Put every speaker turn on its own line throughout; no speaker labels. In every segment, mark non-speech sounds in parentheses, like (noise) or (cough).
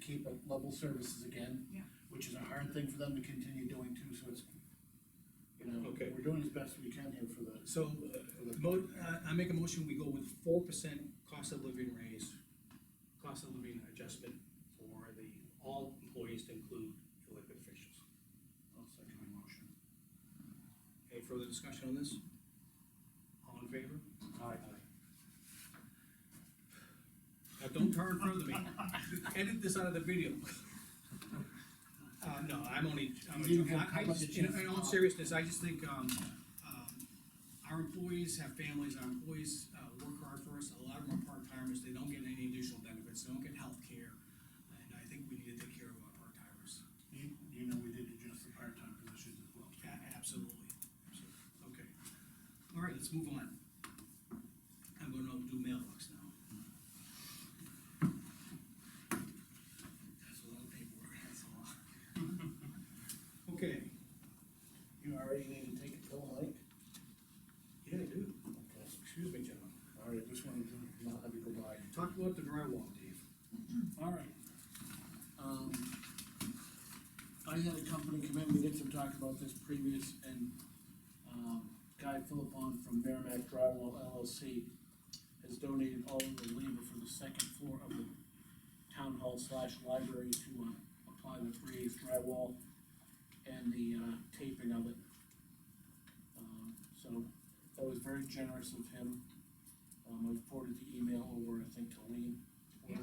keep at level services again.
Yeah.
Which is a hard thing for them to continue doing too, so it's, you know,
Okay.
we're doing as best we can here for the,
So, uh, mo, uh, I, I make a motion, we go with four percent cost of living raise, cost of living adjustment for the, all employees to include elected officials.
I'll second the motion.
Any further discussion on this? All in favor? Aye. Now, don't turn in front of me, edit this out of the video. Uh, no, I'm only, I'm,
You have
I, I
public
just, in,
issues.
in all seriousness, I just think, um, um, our employees have families, our employees, uh, work hard for us, a lot of them are part-timers, they don't get any additional benefits, they don't get health care, and I think we need to take care of our part-timers.
You, you know, we did adjust the part-time positions as well.
Yeah, absolutely, absolutely, okay. All right, let's move on. I'm gonna do mailbox now. That's a lot of paperwork, that's a lot. (laughs) Okay.
You already need to take a pill, Mike?
Yeah, I do.
Okay.
Excuse me, gentlemen.
All right, just wanted to not have you go by.
Talk about the drywall, Dave.
All right. Um, I had a company come in, we did some talk about this previous, and, um, Guy Philippon from Merrimack Drywall LLC has donated all of the labor for the second floor of the town hall slash library to, uh, apply the raised drywall and the, uh, taping of it. Um, so, that was very generous of him. Um, I forwarded the email over, I think, to Lean.
Yeah.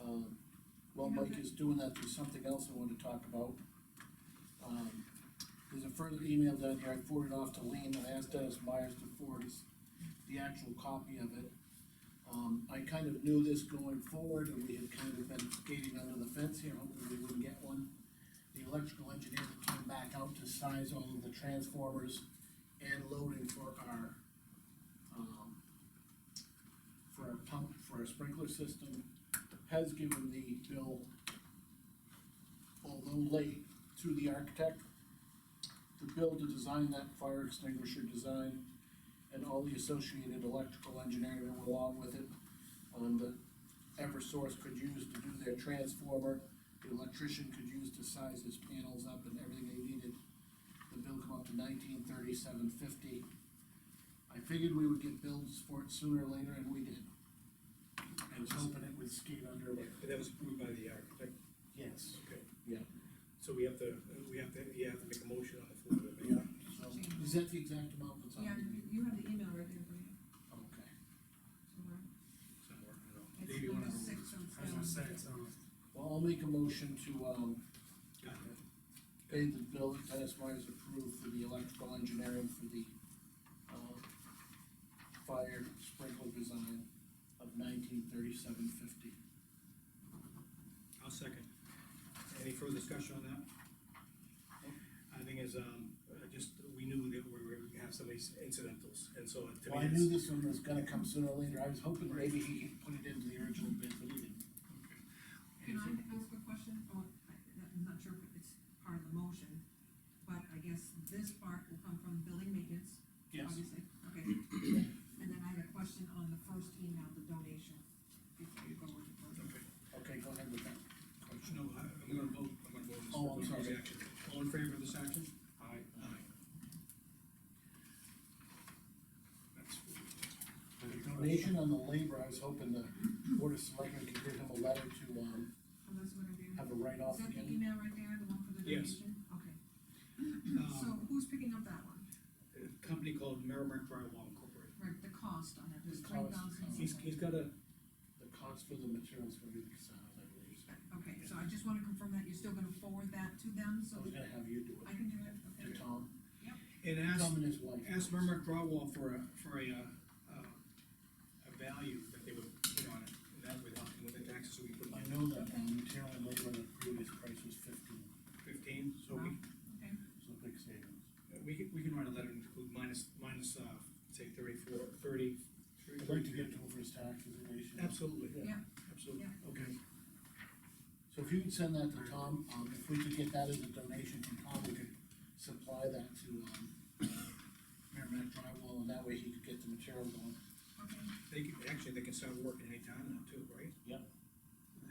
Um, while Mike is doing that, there's something else I wanted to talk about. Um, there's a further email down here, I forwarded off to Lean, and I asked Dennis Myers to forward us the actual copy of it. Um, I kind of knew this going forward, and we had kind of been skating under the fence here, hoping we wouldn't get one. The electrical engineer that came back out to size all of the transformers and loading for our, um, for our pump, for our sprinkler system, has given the bill, although late, to the architect. The bill to design that fire extinguisher design and all the associated electrical engineering that went along with it. Um, that Eversource could use to do their transformer, the electrician could use to size his panels up and everything they needed. The bill come up to nineteen thirty-seven fifty. I figured we would get bills for it sooner or later, and we did. I was hoping it would skate under, but
That was approved by the architect.
Yes.
Okay.
Yeah.
So we have to, we have to, you have to make a motion on the floor to make.
Yeah. So, is that the exact amount that's on?
Yeah, you you have the email right there, for you,
Okay.
somewhere.
Somewhere, I don't know.
It's
Dave, you wanna?
number six on
I was gonna say, um,
seven.
so,
Well, I'll make a motion to, um,
Got it.
pay the bill that Dennis Myers approved for the electrical engineering for the, um, fire sprinkler design of nineteen thirty-seven fifty.
I'll second. Any further discussion on that? I think is, um, uh, just, we knew that we were gonna have some of these incidentals, and so to
Well,
me,
I
it's.
knew this one was gonna come sooner or later, I was hoping maybe he could put it into the original bid, but he didn't.
Can I ask a question? Oh, I- I'm not sure if it's part of the motion, but I guess this part will come from building maintenance.
Yes,
Obviously, okay. And then I had a question on the first email, the donation, before you go with the first.
Okay.
okay, go ahead with that question.
No, I, I'm gonna vote, I'm gonna vote. this
Oh, I'm
for
sorry.
the action. All in favor of this action? Aye. Aye. That's
The donation on the labor, I was hoping the board of selectmen could give him a letter to, um,
Oh, that's what I did.
have a write-off
Is that the
again.
email right there, the one for the
Yes.
donation? Okay, so
Um,
who's picking up that one?
a company called Merrimack Drywall Incorporated.
Right, the cost on it,
The
was
cost,
three thousand.
um,
He's, he's got a,
The cost for the materials for the sound, I believe.
Okay, so I just wanna confirm that, you're still gonna forward that to them,
So I
so
was
that
gonna have you do
I
it,
can do it, okay?
to Tom,
and ask,
Tom and his wife.
ask Merrimack Drywall for a, for a, uh, uh, a value that they would put on it, and that would help with the taxes, so we put
I know that, um, material and labor, the previous price was fifteen,
fifteen, so we,
Okay,
so big savings.
we can, we can write a letter and include minus, minus, uh, say thirty-four, thirty.
I'd like to get to over his taxes and issues.
Absolutely,
Yeah.
yeah,
absolutely,
Yeah.
okay.
So if you could send that to Tom, um, if we could get that as a donation from Tom, we could supply that to, um, Merrimack Drywall, and that way he could get the material going.
okay,
They can, actually, they can start working anytime now too, right?
Yep.